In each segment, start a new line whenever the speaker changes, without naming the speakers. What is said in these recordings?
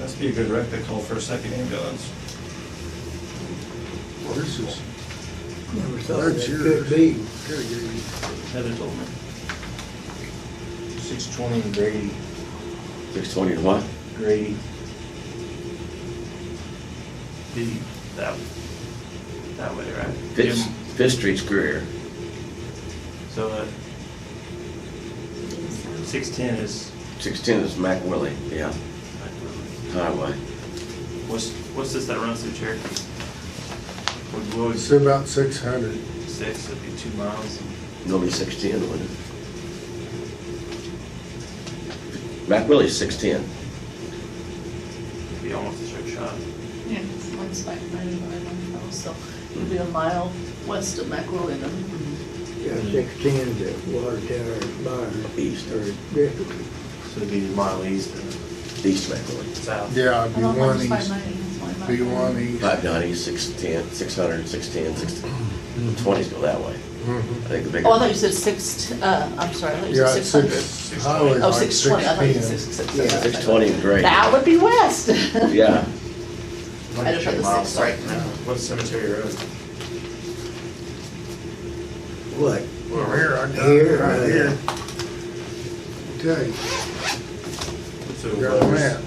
Must be a good rec that called for a second ambulance.
This is,
Never thought
that's
it
yours.
could be.
Gotta give you-
Heather told me.
Six twenty and Grady,
Six twenty and what?
Grady,
The, that, that way, right?
Fifth,
Jim,
Fifth Street's Greer.
So, uh, six-ten is,
Six-ten is Mac Willie, yeah, highway.
what's, what's this that runs through Cherokee? Would, what would,
It's about six hundred.
six, it'd be two miles.
Normally six-ten, wouldn't it? Mac Willie's six-ten.
It'd be almost a straight shot.
Yeah, it's one spot, nine, nine, nine, oh, so it'll be a mile west of Macrolean.
Yeah, sixteen to Water Tower Barn.
East.
Or Griffin.
So it'd be a mile east and
East Mac Willie.
south.
Yeah,
I
it'd be
don't
one
want to buy
east,
mine, it's my mile.
be one east.
Five ninety, six-ten, six hundred, six-ten, six, twenties go that way. I
Mhm.
think the bigger.
Oh, I thought you said six, t- uh, I'm sorry, I thought you
Yeah,
said
it's
six hundred.
six, highway's
Oh,
like
six twenty, I thought you
610.
said six, six.
Yeah,
six-
Six-twenty and Greer.
That would be west. I
Yeah,
just heard the
Miles
six, sorry.
south. What's Cemetery Road?
What?
Well, here, I got it
Here,
right
uh,
here. Tell you,
What's
I
it-
got a map.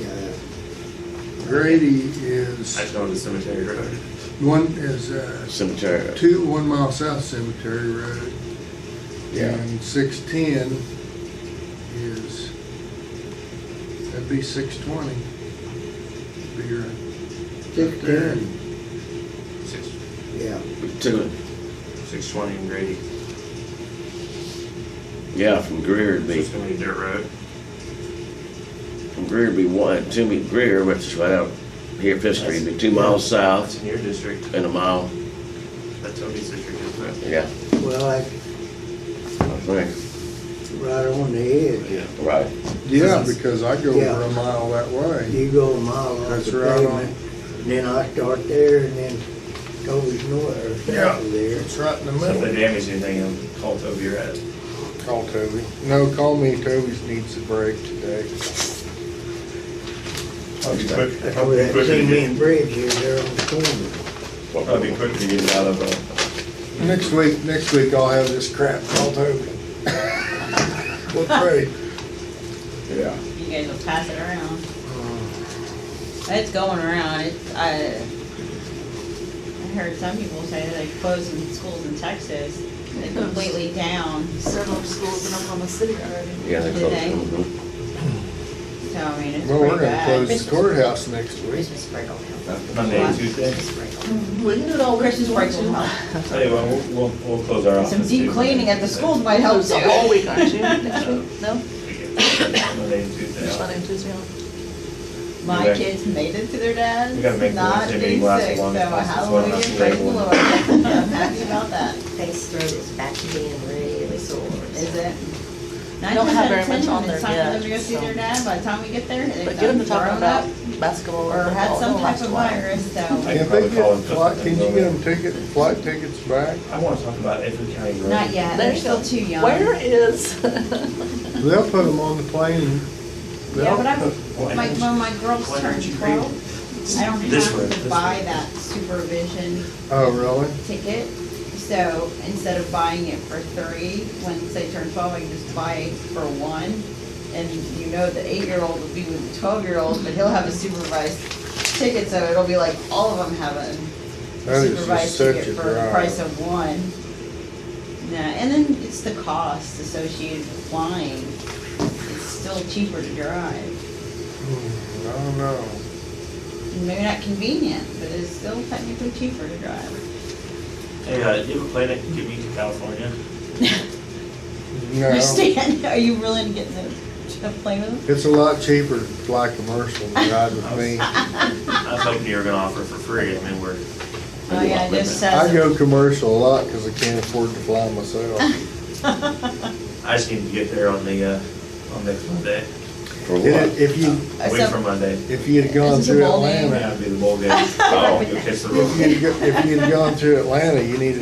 Yeah.
Grady
I just
is,
know the Cemetery Road.
one is, uh,
cemetery.
two, one mile south Cemetery Road.
Yeah.
And six-ten is, that'd be six-twenty. Be right there.
Sixteen,
Six,
yeah.
Two,
six-twenty and Grady.
yeah, from Greer would
So
be,
it's gonna be dirt road.
from Greer would be one, two would be Greer, which is right out here, Fifth Street, would be two miles
That's
south
in your district.
and a mile,
That's Toby's district, isn't it?
yeah,
Well, that's
I think,
right on the edge.
right.
Yeah, because I go over
Yeah.
a mile that way.
You go a mile off
That's
the
right on.
pavement, and then I start there and then goes north or
Yeah.
south of there.
It's right in the
So if they
middle.
damage anything, um, call Toby or Ed.
Call Toby. No, call me. Toby's needs a break today.
Probably
That's where that
quicker to get-
cement bridge is there on the corner.
probably be quicker to get it out of uh, a.
Next week, next week I'll have this crap. Call Toby. We'll trade. Yeah.
You guys will pass it around. It's going around, it's, I, I heard some people say that they closed in schools in Texas, they're completely down,
Several schools in Oklahoma City already.
Yeah, they're
Do
close.
they?
Mhm.
so I mean, it's
Well,
pretty
we're gonna
bad.
close the courthouse next week.
Christmas break will help.
Monday and Tuesday.
Christmas break will
We can do it all.
Christmas break's
weekend.
tomorrow.
Tell you what, we'll, we'll, we'll close our
help.
office.
Some deep
too.
cleaning at the schools might help
It's
too.
a whole week, aren't you? Next
No.
week? No?
Monday and Tuesday.
Just Monday and Tuesday off.
My
Okay.
kids made it to their dads,
We gotta make the
not
Wednesday
be
meeting last
sick,
as
so
long as possible, so
hallelujah,
that's the
praise the
label.
Lord. I'm happy about that.
Face throat is back to being really sore.
Is it?
They don't have very much on there
Nine times out of ten, It's time for
yet,
them to go see
so.
their dad, by the time we get there, they've
But get them
done
to talk
grown up
about basketball
or
or
had
football.
some
It'll
type
last
of
a while.
virus, so,
I can
Can't they
probably call
get
and put
flight, can
something
you
over
get
there.
them ticket, flight tickets back?
I wanna talk about Edward County Road.
not yet, they're
There's
still
the-
too young.
Where is?
They'll put them on the plane.
Yeah, but
They'll-
I, my, when my girls
Why don't you
turned twelve, I don't
This way,
have
this
to
way.
buy that supervision
Oh, really?
ticket. So instead of buying it for three, once they turn twelve, I can just buy it for one. And you know the eight-year-old will be with the twelve-year-old, but he'll have a supervised ticket, so it'll be like all of them have a
That is
supervised
just such a
ticket for the price
drive.
of one. No, and then it's the cost associated with flying. It's still cheaper to drive.
Hmm, I don't know.
Maybe not convenient, but it's still technically cheaper to drive.
Hey, uh, you have a plane that can get me to California?
No,
You stand, are you willing to get in the plane with them?
it's a lot cheaper to fly commercial than ride with me.
I was hoping you were gonna offer for free, I mean, we're,
Oh, yeah, it just
I
says,
go commercial a lot because I can't afford to fly myself.
I just need to get there on the, uh, on next Monday,
For what?
If if you,
wait for Monday.
if you'd have gone
This is a
through
bold
Atlanta,
That'd be the bowl game. Oh, you'll catch the road.
if you'd, if you'd gone through Atlanta, you needed